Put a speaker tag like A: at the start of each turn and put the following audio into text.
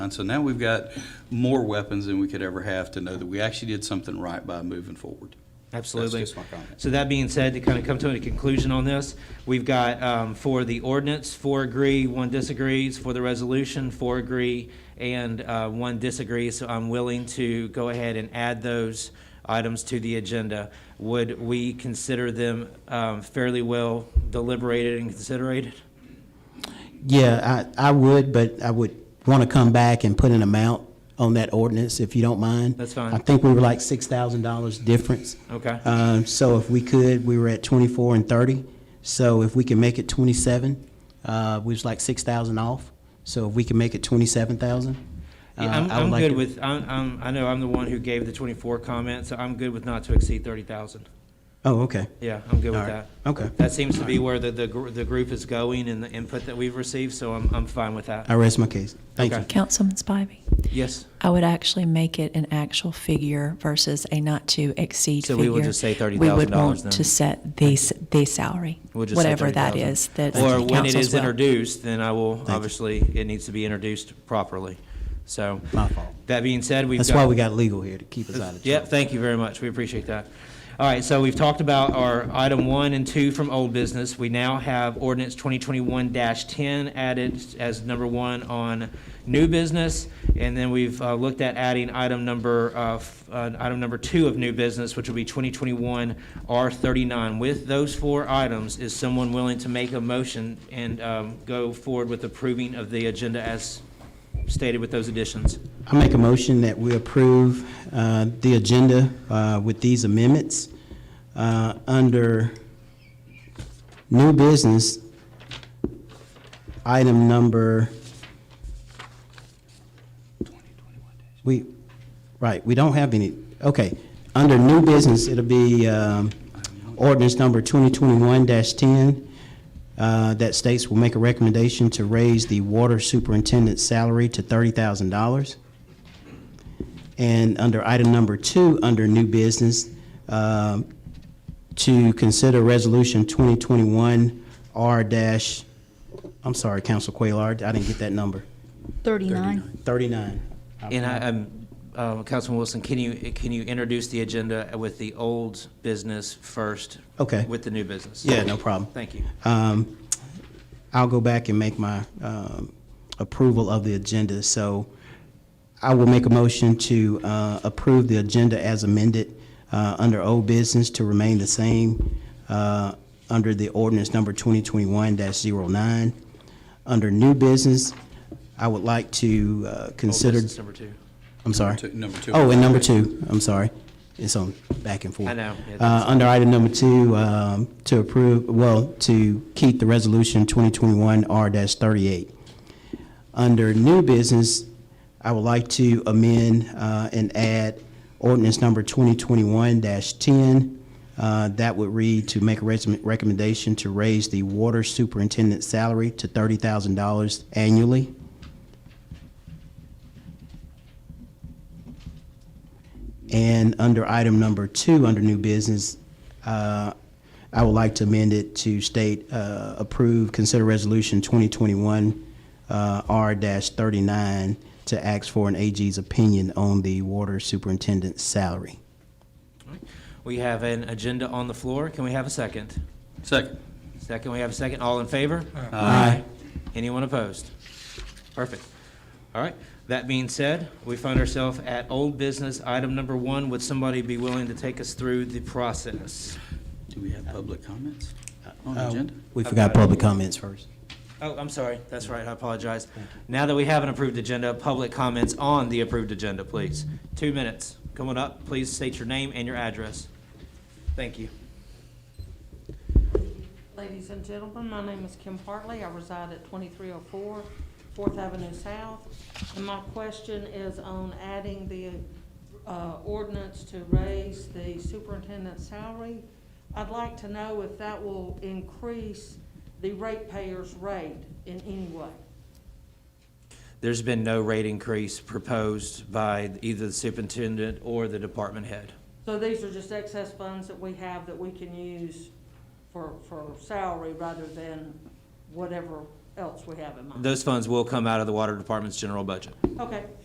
A: And so now we've got more weapons than we could ever have to know that we actually did something right by moving forward.
B: Absolutely.
A: That's just my comment.
B: So that being said, to kind of come to a conclusion on this, we've got um, for the ordinance, four agree, one disagrees. For the resolution, four agree, and uh, one disagrees. So I'm willing to go ahead and add those items to the agenda. Would we consider them um, fairly well deliberated and considerated?
C: Yeah, I, I would, but I would want to come back and put an amount on that ordinance, if you don't mind.
B: That's fine.
C: I think we were like six thousand dollars difference.
B: Okay.
C: Um, so if we could, we were at twenty-four and thirty, so if we can make it twenty-seven, uh, we was like six thousand off, so if we can make it twenty-seven thousand.
A: Uh,
C: uh,
B: Yeah, I'm, I'm good with, I'm, I'm, I know I'm the one who gave the 24 comment, so I'm good with not to exceed 30,000.
C: Oh, okay,
B: Yeah, I'm good
C: All
B: with that.
C: right. Okay.
B: That seems to be where the, the, gr- the group is going and the input that we've received, so I'm, I'm fine with that.
C: I rest my case, thank
B: Okay.
C: you.
D: Councilman Spivey,
B: Yes.
D: I would actually make it an actual figure versus a not to exceed
B: So
D: figure.
B: we will just say
D: We would
B: $30,000
D: want
B: then.
D: to set the, s- the salary,
B: We'll just say
D: whatever that
B: 30,000.
D: is, that
B: Or when it
D: council's
B: is
D: will.
B: introduced, then I will,
C: you.
B: obviously, it needs to be introduced properly. So.
C: My fault.
B: That being said, we've got.
C: That's why we got legal here, to keep us out of
B: Yeah,
C: trouble.
B: thank you very much. We appreciate that. All right, so we've talked about our item one and two from old business. We now have ordinance 2021-10 added as number one on new business. And then we've uh, looked at adding item number, uh, f- uh, item number two of new business, which will be 2021 R39. With those four items, is someone willing to make a motion and um, go forward with approving of the agenda as stated with those additions?
C: I make a motion that we approve uh, the agenda uh, with these amendments. Uh, Under new business, item number, we, right, we don't have any, okay. Under new business, it'll be um, ordinance number 2021-10 uh, that states will make a recommendation to raise the water superintendent's salary to $30,000. And under item number two, under new business, um, to consider resolution 2021 R dash, I'm sorry, Council Quayle, I didn't get that number,
E: 39.
C: 39.
B: And I, um, uh, Councilman Wilson, can you, can you introduce the agenda with the old business first?
C: Okay.
B: With the new business?
C: Yeah, no problem.
B: Thank you.
C: Um, I'll go back and make my um, approval of the agenda. So I will make a motion to uh, approve the agenda as amended uh, under old business to remain the same uh, under the ordinance number 2021-09. Under new business, I would like to uh,
B: Old
C: consider,
B: business number two.
C: I'm sorry.
A: two- number two.
C: Oh, and number two, I'm sorry. It's on back and forth.
B: I know. Yeah,
C: Uh,
B: that's-
C: under item number two, um, to approve, well, to keep the resolution 2021 R-38. Under new business, I would like to amend uh, and add ordinance number 2021-10. Uh, That would read to make a res- recommendation to raise the water superintendent's salary to $30,000 annually. And under item number two, under new business, uh, I would like to amend it to state, uh, approve, consider resolution 2021 uh, R-39 to ask for an AG's opinion on the water superintendent's salary.
B: We have an agenda on the floor. Can we have a second?
A: Second.
B: Second, we have a second. All in favor?
C: Aye.
B: Anyone opposed? Perfect. All right. That being said, we find ourselves at old business, item number one. Would somebody be willing to take us through the process?
A: Do we have public comments on the agenda?
C: Uh, We forgot public comments first.
B: Oh, I'm sorry. That's right. I apologize. Now that we have an approved agenda, public comments on the approved agenda, please. Two minutes. Come on up. Please state your name and your address. Thank you.
F: Ladies and gentlemen, my name is Kim Hartley. I reside at 2304 Fourth Avenue South. And my question is on adding the uh, ordinance to raise the superintendent's salary. I'd like to know if that will increase the ratepayers' rate in any way.
B: There's been no rate increase proposed by either the superintendent or the department head.
F: So these are just excess funds that we have that we can use for, for salary rather than whatever else we have in mind.
B: Those funds will come out of the water department's general budget.
F: Okay.